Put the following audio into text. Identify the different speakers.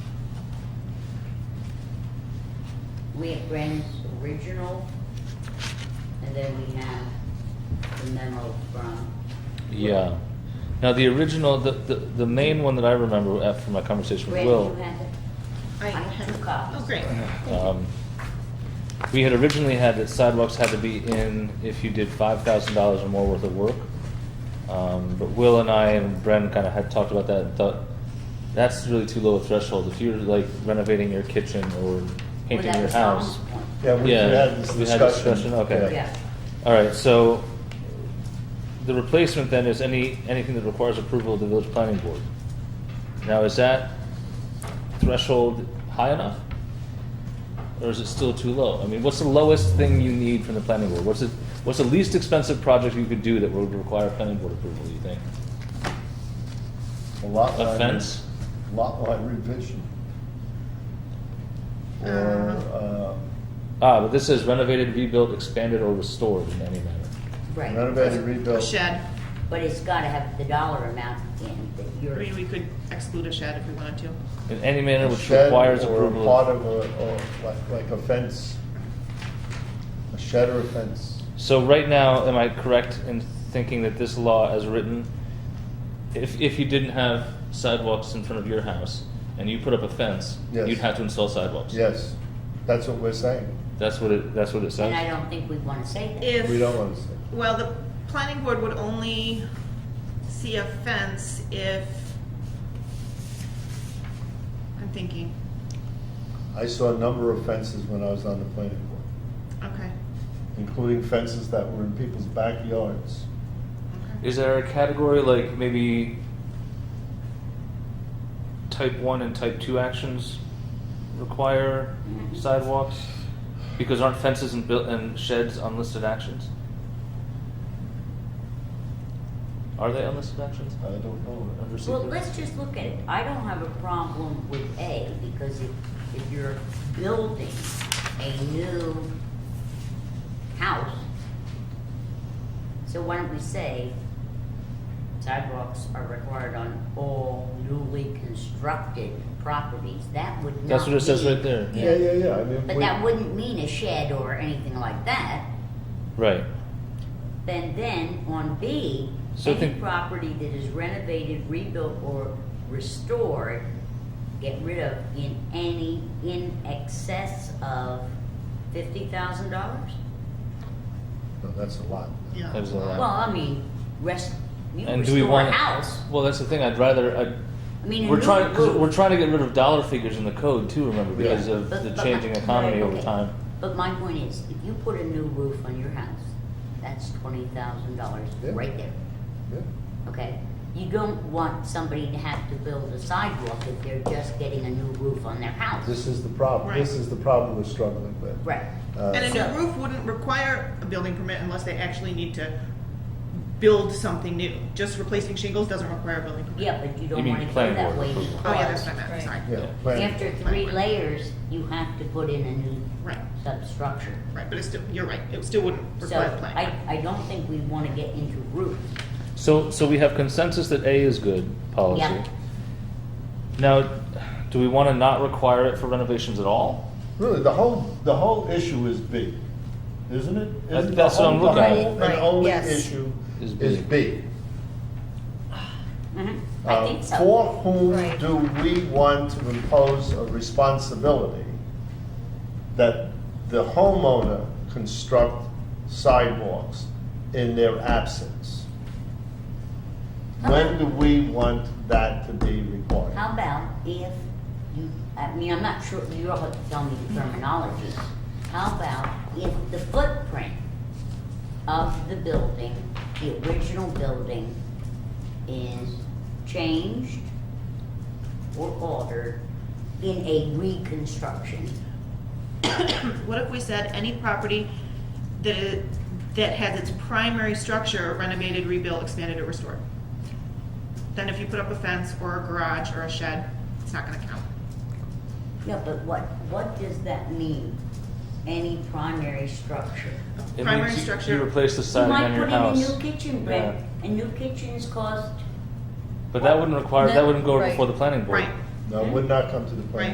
Speaker 1: we have Brandon's original, and then we have the memo from,
Speaker 2: Yeah. Now, the original, the, the, the main one that I remember after my conversation with
Speaker 1: Brandon,
Speaker 2: Will.
Speaker 1: you had the,
Speaker 3: I
Speaker 1: I have two copies.
Speaker 3: Oh, great.
Speaker 2: um, We had originally had that sidewalks had to be in if you did five thousand dollars or more worth of work. Um, but Will and I and Bren kind of had talked about that and thought, that's really too low a threshold. If you're like renovating your kitchen or
Speaker 1: Well,
Speaker 2: painting
Speaker 1: that
Speaker 2: your
Speaker 1: was
Speaker 2: house.
Speaker 1: Tom's point.
Speaker 4: Yeah, we we
Speaker 2: Yeah,
Speaker 4: had this discussion.
Speaker 2: we had discussion, okay.
Speaker 1: Yeah,
Speaker 2: All right, so the replacement then is any, anything that requires approval of the village planning board. Now, is that threshold high enough? Or is it still too low? I mean, what's the lowest thing you need from the planning board? What's the, what's the least expensive project you could do that would require planning board approval, do you think?
Speaker 4: A lot
Speaker 2: A
Speaker 4: line.
Speaker 2: fence?
Speaker 4: Lot line revision. Or,
Speaker 3: Uh.
Speaker 4: uh,
Speaker 2: Ah, but this says renovated, rebuilt, expanded, or restored in any manner.
Speaker 1: right.
Speaker 4: renovated, rebuilt.
Speaker 3: A shed.
Speaker 1: But it's gotta have the dollar amount in that
Speaker 3: I
Speaker 1: you're,
Speaker 3: mean, we could exclude a shed if we wanted to.
Speaker 2: In any manner which
Speaker 4: shed
Speaker 2: requires
Speaker 4: or
Speaker 2: approval. of-
Speaker 4: Part of a, or like, like a fence, a shed or a fence.
Speaker 2: So right now, am I correct in thinking that this law, as written, if if you didn't have sidewalks in front of your house and you put up a fence,
Speaker 4: Yes.
Speaker 2: you'd have to install sidewalks.
Speaker 4: Yes, that's what we're saying.
Speaker 2: That's what it. That's what it says.
Speaker 1: and I don't think we wanna say that.
Speaker 3: If.
Speaker 4: We don't want to say.
Speaker 3: Well, the planning board would only see a fence if, I'm thinking,
Speaker 4: I saw a number of fences when I was on the planning board,
Speaker 3: okay,
Speaker 4: including fences that were in people's backyards.
Speaker 3: okay.
Speaker 2: Is there a category like maybe type one and type two actions require
Speaker 1: Mhm.
Speaker 2: sidewalks? Because aren't fences and built and sheds unlisted actions? Are they unlisted actions?
Speaker 4: I don't know.
Speaker 2: Under
Speaker 1: Well,
Speaker 2: secret?
Speaker 1: let's just look at it. I don't have a problem with A, because if, if you're building a new house, so why don't we say sidewalks are required on all newly constructed properties? That would not
Speaker 2: That's what it says
Speaker 1: mean-
Speaker 2: right there.
Speaker 4: Yeah, yeah, yeah, I mean.
Speaker 1: But
Speaker 4: we-
Speaker 1: that wouldn't mean a shed or anything like that.
Speaker 2: Right.
Speaker 1: Then, then on B,
Speaker 2: So
Speaker 1: any
Speaker 2: think-
Speaker 1: property that is renovated, rebuilt, or restored, get rid of in any, in excess of fifty thousand dollars?
Speaker 4: No, that's a lot.
Speaker 3: Yeah.
Speaker 2: That was a lot.
Speaker 1: Well, I mean, rest, you
Speaker 2: And do we
Speaker 1: restore
Speaker 2: want
Speaker 1: a house,
Speaker 2: Well, that's the thing. I'd rather. I'd,
Speaker 1: I mean, a
Speaker 2: we're
Speaker 1: new
Speaker 2: trying. Cause
Speaker 1: roof.
Speaker 2: we're trying to get rid of dollar figures in the code too. Remember, because
Speaker 1: Yeah.
Speaker 2: of
Speaker 1: But-
Speaker 2: the
Speaker 1: but my-
Speaker 2: changing economy
Speaker 1: right,
Speaker 2: over
Speaker 1: okay.
Speaker 2: time.
Speaker 1: But my point is, if you put a new roof on your house, that's twenty thousand dollars
Speaker 4: Yeah.
Speaker 1: right there.
Speaker 4: Yeah.
Speaker 1: Okay, you don't want somebody to have to build a sidewalk if they're just getting a new roof on their house.
Speaker 4: This is the problem, this
Speaker 3: Right.
Speaker 4: is the problem we're struggling with.
Speaker 1: Right,
Speaker 4: Uh,
Speaker 3: And a new roof wouldn't require a building permit unless they actually need to build something new. Just replacing shingles doesn't require a building permit.
Speaker 1: yeah, but you don't
Speaker 2: mean
Speaker 1: wanna do
Speaker 2: planning
Speaker 1: that
Speaker 2: board
Speaker 1: way
Speaker 2: approval.
Speaker 3: Oh, yeah, that's
Speaker 1: because
Speaker 3: what I meant, sorry.
Speaker 4: Yeah, plan-
Speaker 1: after three layers, you have to put in a new
Speaker 3: Right,
Speaker 1: substructure.
Speaker 3: right, but it's still, you're right, it still wouldn't
Speaker 1: So
Speaker 3: require a plan.
Speaker 1: I, I don't think we wanna get into roofs.
Speaker 2: So, so we have consensus that A is good policy.
Speaker 1: Yeah.
Speaker 2: Now, do we want to not require it for renovations at all?
Speaker 4: Really, the whole, the whole issue is B, isn't it? Isn't
Speaker 2: That-
Speaker 4: the
Speaker 2: that's what I'm
Speaker 4: whole-
Speaker 2: looking at.
Speaker 4: The whole
Speaker 3: Right,
Speaker 4: and only
Speaker 3: yes.
Speaker 4: issue
Speaker 2: Is B.
Speaker 4: is B.
Speaker 1: Mhm, I
Speaker 4: Uh,
Speaker 1: think so.
Speaker 4: For whom
Speaker 3: Right.
Speaker 4: do we want to impose a responsibility that the homeowner construct sidewalks in their absence? When do we want that to be required?
Speaker 1: How about if you, I mean, I'm not sure, you all have to tell me the terminology. How about if the footprint of the building, the original building, is changed or altered in a reconstruction?
Speaker 3: What if we said any property that, i- that has its primary structure renovated, rebuilt, expanded, or restored? Then if you put up a fence or a garage or a shed, it's not gonna count.
Speaker 1: Yeah, but what, what does that mean? Any primary structure?
Speaker 3: A
Speaker 2: It
Speaker 3: primary
Speaker 2: means you- You
Speaker 3: structure,
Speaker 2: replace the
Speaker 1: You
Speaker 2: siding on
Speaker 1: might
Speaker 2: your
Speaker 1: put in a
Speaker 2: house.
Speaker 1: new kitchen, Brett, and new kitchens cost
Speaker 2: But that wouldn't require, that
Speaker 5: No,
Speaker 2: wouldn't go
Speaker 5: right.
Speaker 2: before the planning board.
Speaker 3: right,
Speaker 4: No, it would not come to the
Speaker 3: Right.
Speaker 4: planning